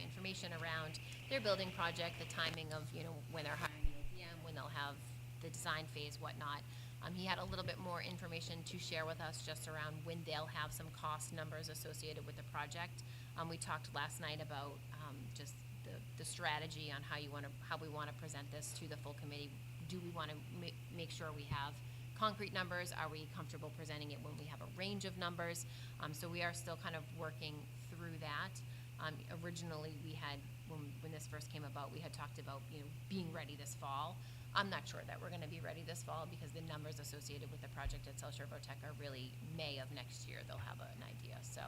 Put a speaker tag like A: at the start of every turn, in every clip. A: information around their building project, the timing of, you know, when they're hiring the OPM, when they'll have the design phase, whatnot. Um, he had a little bit more information to share with us just around when they'll have some cost numbers associated with the project. Um, we talked last night about, um, just the, the strategy on how you wanna, how we wanna present this to the full committee. Do we wanna ma- make sure we have concrete numbers? Are we comfortable presenting it when we have a range of numbers? Um, so we are still kind of working through that. Um, originally, we had, when, when this first came about, we had talked about, you know, being ready this fall. I'm not sure that we're gonna be ready this fall because the numbers associated with the project at South Shore Tech are really May of next year, they'll have an idea. So,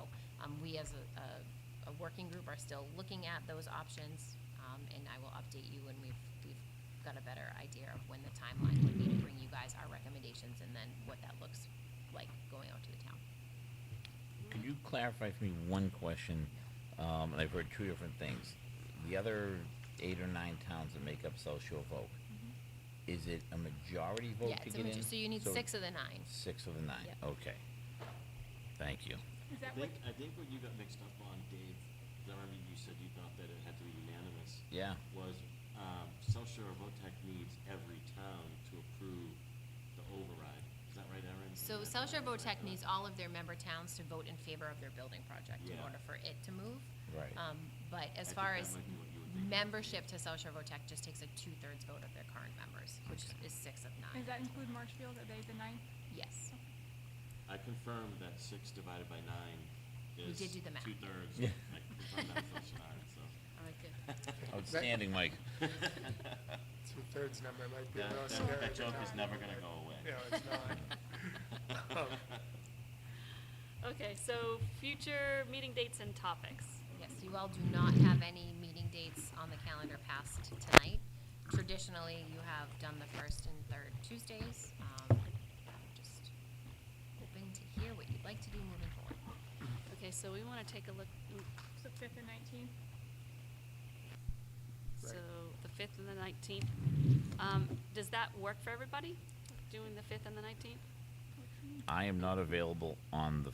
A: um, we as a, a, a working group are still looking at those options, um, and I will update you when we've, we've got a better idea of when the timeline would be to bring you guys our recommendations and then what that looks like going out to the town.
B: Could you clarify for me one question? Um, and I've heard two different things. The other eight or nine towns that make up South Shore vote,
C: Mm-hmm.
B: is it a majority vote
A: Yeah,
B: to
A: it's a
B: get
A: major-
B: in?
A: so you need six of the nine.
B: Six of the nine.
A: Yep.
B: Okay. Thank you.
D: Is
C: I
D: that what,
C: think, I think what you got mixed up on, Dave, 'cause I remember you said you thought that it had to be unanimous,
B: Yeah.
C: was um, South Shore Votech needs every town to approve the override. Is that right, Erin?
A: So
C: Is that
A: South Shore
C: right?
A: VoTech needs all of their member towns to vote in favor of their building project in
C: Yeah.
A: order for it to move.
B: Right.
A: Um, but as
C: I
A: far
C: think that
A: as
C: might be what you were thinking.
A: membership to South Shore VoTech just takes a two-thirds vote of their current members, which
B: Okay.
A: is six of nine.
D: does that include Marshfield? Are they the ninth?
A: Yes.
C: I confirmed that six divided by nine
A: We
C: is
A: did do the math.
C: two-thirds.
B: Yeah.
C: I confirmed that with South Shore, so.
A: All right, good.
B: Outstanding, Mike.
E: Two-thirds number might be a
C: That,
E: little
C: that,
E: scary.
C: that
E: at
C: joke is
E: times.
C: never gonna go away.
E: No, it's not. Um,
F: Okay, so future meeting dates and topics.
A: Yes, you all do not have any meeting dates on the calendar past tonight. Traditionally, you have done the first and third Tuesdays. Um, I'm just hoping to hear what you'd like to do moving forward.
F: Okay, so we want to take a look, mm,
D: So fifth and nineteenth?
E: Right.
F: so the fifth and the nineteenth. Um, does that work for everybody, doing the fifth and the nineteenth?
B: I am not available on the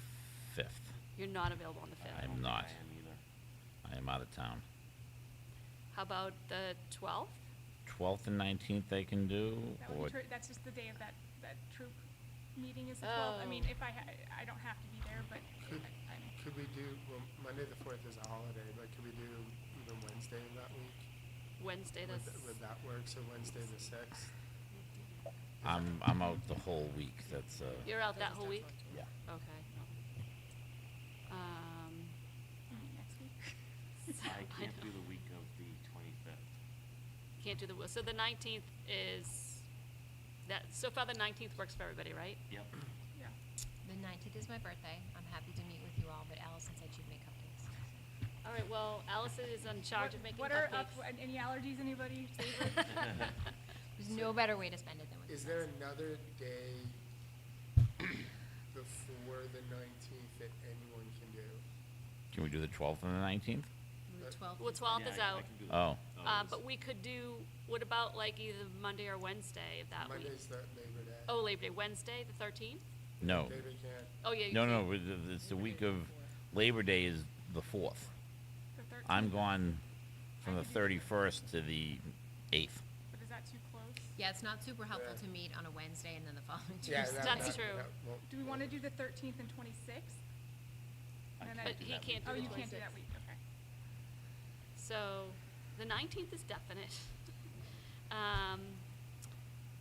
B: fifth.
F: You're not available on the fifth.
B: I'm not.
C: I am either.
B: I am out of town.
F: How about the twelfth?
B: Twelfth and nineteenth I can do,
D: That
B: or
D: would be true, that's just the day of that, that troop meeting is the twelfth. I mean,
F: Oh.
D: if I, ha- I don't have to be there, but
E: Could,
D: I- I'm,
E: could we do, well, Monday the fourth is a holiday, but could we do even Wednesday of that week?
F: Wednesday
E: Would
F: the,
E: th-
F: s-
E: Would that work, so Wednesday the sixth?
B: I'm I'm out the whole week. That's uh.
F: you're out that whole week?
B: Yeah.
F: Okay. Um,
D: mm, next week.
C: I can't do the week of the twenty-fifth.
F: can't do the, so the nineteenth is, that, so far the nineteenth works for everybody, right?
C: Yep.
D: Yeah.
A: The nineteenth is my birthday. I'm happy to meet with you all, but Allison said she'd make cupcakes.
F: All right, well, Allison is in charge
D: What-
F: of making
D: What are up, an-
F: cupcakes.
D: any allergies, anybody? Favorite?
A: There's no better way to spend it than with
E: Is
A: you
E: there
A: guys.
E: another day before the nineteenth that anyone can do?
B: Can we do the twelfth and the nineteenth?
A: The 12th
F: Well,
A: is-
F: twelfth
C: Yeah,
F: is
C: I- I
F: out.
C: can do the-
B: Oh.
F: Uh,
C: it's-
F: but we could do, what about like either Monday or Wednesday of that week?
E: Monday's the Labor Day.
F: Oh, Labor Day, Wednesday, the thirteenth?
B: No.
E: Labor can't,
F: Oh, yeah. you
B: No,
F: can't.
B: no, it- it- it's the week of Labor Day is the fourth.
D: The thirteenth?
B: I'm gone from the thirty-first to the eighth.
D: But is that too close?
A: Yeah, it's not super helpful
E: Yeah.
A: to meet on a Wednesday and then the following
E: yeah,
A: Tuesday.
E: that,
F: That's
E: that,
F: true.
E: that won't.
D: Do we want to do the thirteenth and twenty-sixth?
C: I
D: And then-
C: can't do
F: But he
C: that week.
F: can't
D: Oh,
F: do
D: you
F: the
D: can't do that
F: 26th.
D: week, okay.
F: So, the nineteenth is definite. Um,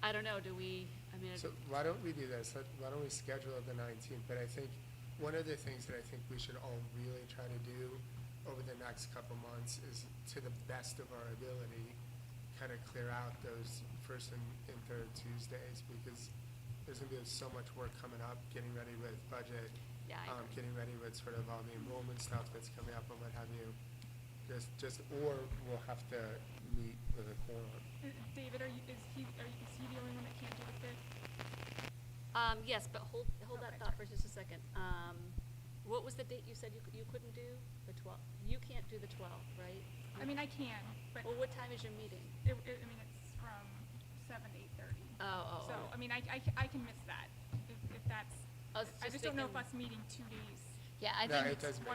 F: I don't know, do we, I mean,
E: So why don't we do this? Let- Why don't we schedule it the nineteenth? But I think, one of the things that I think we should all really try to do over the next couple months is, to the best of our ability, kind of clear out those first and, and third Tuesdays, because there's gonna be so much work coming up, getting ready with budget.
F: Yeah, I
E: um,
F: agree.
E: Getting ready with sort of all the enrollment stuff that's coming up and what have you. Just, just, or we'll have to meet with a quorum.
D: Uh, David, are you, is he, are you, is he the only one that can't do the fifth?
F: um, yes, but hold, hold that
D: Okay.
F: thought for just a second. Um, what was the date you said you, c- you couldn't do? The twelfth? You can't do the twelfth, right?
D: I mean, I can, but
F: Well, what time is your meeting?
D: it, it, I mean, it's from seven to eight thirty.
F: Oh, oh,
D: So,
F: oh.
D: I mean, I, I, ca- I can miss that, if, if that's,
F: I was
D: I
F: just
D: just don't know if
F: thinking-
D: us meeting two days.
A: Yeah, I
E: No,
A: think
E: it doesn't